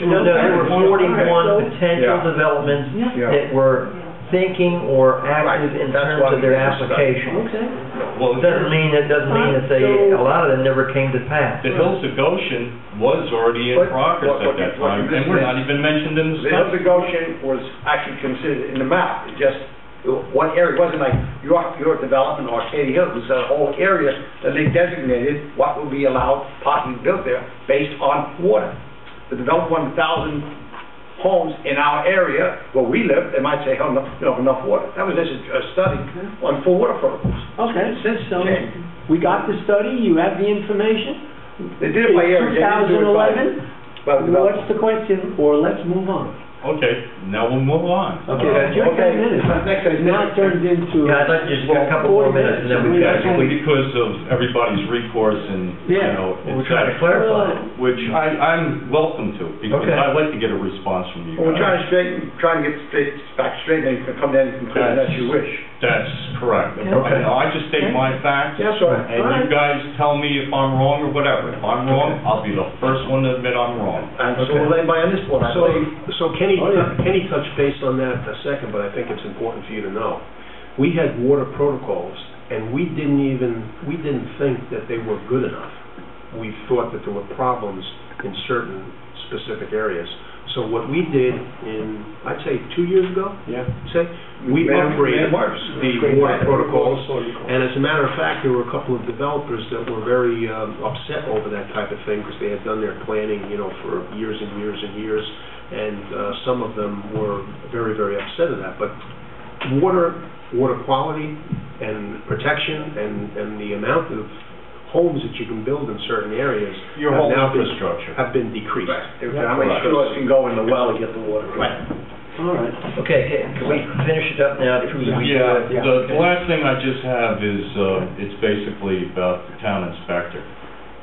No, no, there were forty-one potential Yeah. developments Yeah. that were thinking or active Right, in that's terms why of we their did the study. application. Okay. Well, It doesn't mean, it doesn't mean that they, a lot of them never came to pass. The Hills of Goshen was already in What- progress what- at what- that what time, you and we're just not even mentioned in the The Hills study. of Goshen was actually considered in the map, it just, one area, it wasn't like York, York Development or Katy Hill, it was a whole area that they designated what would be allowed possibly built there based on water. The development, one thousand homes in our area where we live, they might say, oh, no, you don't have enough water. That was just a a study on four water protocols. Okay, Since so changed. we got the study, you have the information. They did it by area, they didn't do it by- by the development. What's the question, or let's move on? Okay, now we'll move on. Okay, you Okay. minutes. Next item. Now it turns into. Yeah, I'd like to just get a couple Forty more minutes and then we- That's Yeah. only because of everybody's recourse and, you Yeah. know, Well, We're it's trying to that, clarify. which I, I'm welcome to, because Okay. I'd like to get a response from you Well, we're trying guys. to straighten, trying to get straight, back straight, and you can come down and conclude as you wish. That's correct. I know, I just state my facts, Yes, sir. and you guys tell me if I'm wrong or whatever. If I'm wrong, I'll be the first one to admit I'm wrong. And so will anybody on this board, I So, believe. so Kenny, Oh, yeah. Kenny touched base on that a second, but I think it's important for you to know. We had water protocols, and we didn't even, we didn't think that they were good enough. We thought that there were problems in certain specific areas. So what we did in, I'd say, two years ago, Yeah. say, we Made 'em- made upgraded 'em worse. the water protocols. And as a matter of fact, there were a couple of developers that were very um, upset over that type of thing because they had done their planning, you know, for years and years and years. And uh, some of them were very, very upset at that. But water, water quality and protection and, and the amount of homes that you can build in certain areas Your have whole now been, infrastructure. have been decreased. How many straws can go in the well to get the water? Right. All right. Okay, can can we finish it up now? Trudy? We- Yeah, Yeah. the the last thing I just have is, uh, it's basically about the town inspector.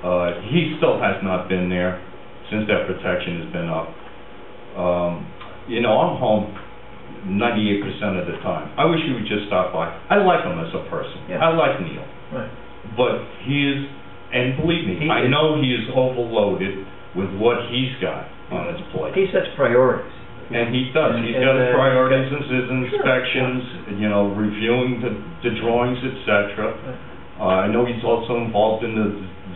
Uh, He still has not been there since that protection has been up. Um, You know, I'm home ninety-eight percent of the time. I wish he would just stop by. I like him as a person. Yeah. I like Neil. Right. But he is, and believe He me, I is- know he is overloaded with what he's got on his plate. He sets priorities. And he does, And- he's and, got uh, his priorities and his inspections, you know, reviewing the, the drawings, et cetera. Uh, I know he's also involved in the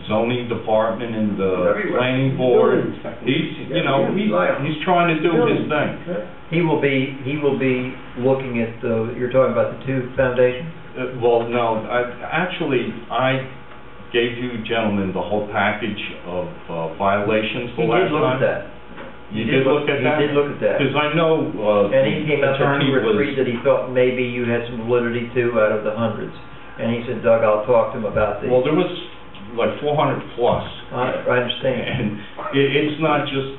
zoning department and the Everywhere. planning board. Building inspector. He's, you know, Yeah, he's, yeah. he's trying to do Building. his thing. He will be, he will be looking at the, you're talking about the two foundations? Uh, well, no, I, actually, I gave you gentlemen the whole package of uh, violations He the did last look at time. that. You did look at that? He did look at that. Because I know, uh, And he came out with attorney two or was- three that he thought maybe you had some validity to out of the hundreds. And he said, Doug, I'll talk to him about these. Well, there was like four hundred plus. I I understand. And it, it's not just,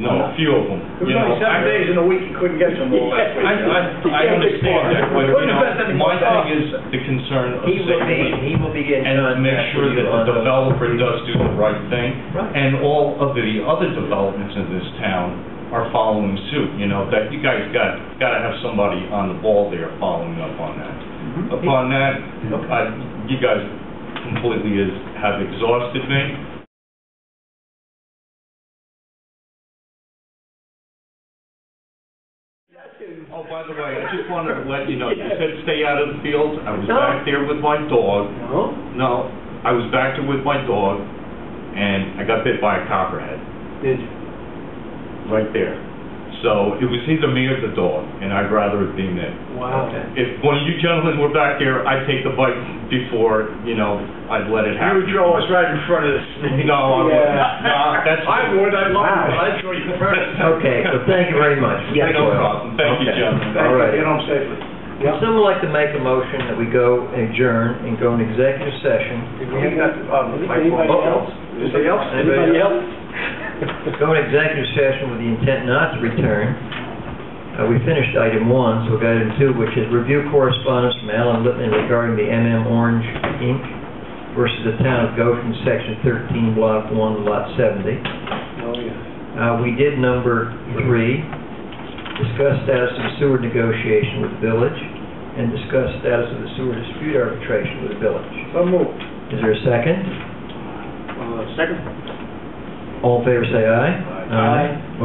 no, a few of them, It was you know. only seven I- days in a week, you couldn't get some more last I, week. I, I understand that, but you Wouldn't have been know, any more my thing time. is the concern of He will be, safety. he will be getting And to contact with you make sure that the on those. developer does do the right thing. Right. And all of the other developments in this town are following suit, you know, that you guys got, gotta have somebody on the ball there following up on that. Mm-hmm. Upon that, I, you guys completely is, have exhausted me. Oh, by the way, I just wanted to let you know, you said stay out of the field. I was No. back there with my dog. No? No, I was back there with my dog, and I got bit by a copperhead Did you? right there. So it was either me or the dog, and I'd rather it be me. Wow. If one of you gentlemen were back there, I'd take the bite before, you know, I'd let it You happen. would draw us right in front of the snake. No, I wouldn't. Yeah. No, that's. I would, I'd love to, but I'd draw you first. Okay, well, thank you very much. No problem. Thank you, Okay. Thank gentlemen. you. Alrighty. Get home safely. Would someone like to make a motion that we go adjourn and go in executive session? Did we have that, um, Mike, Anybody what else? Anybody else? Anybody else? Go in executive session with the intent not to return. Uh, we finished item one, so we've got item two, which is review correspondence from Alan Lippman regarding the MM Orange Inc. versus the town of Goshen, section thirteen, block one, lot seventy. Oh, yeah. Uh, we did number three, discuss status of sewer negotiation with the village, and discuss status of the sewer dispute arbitration with the village. So moved. Is there a second? Uh, Second? All in favor, say aye. Aye.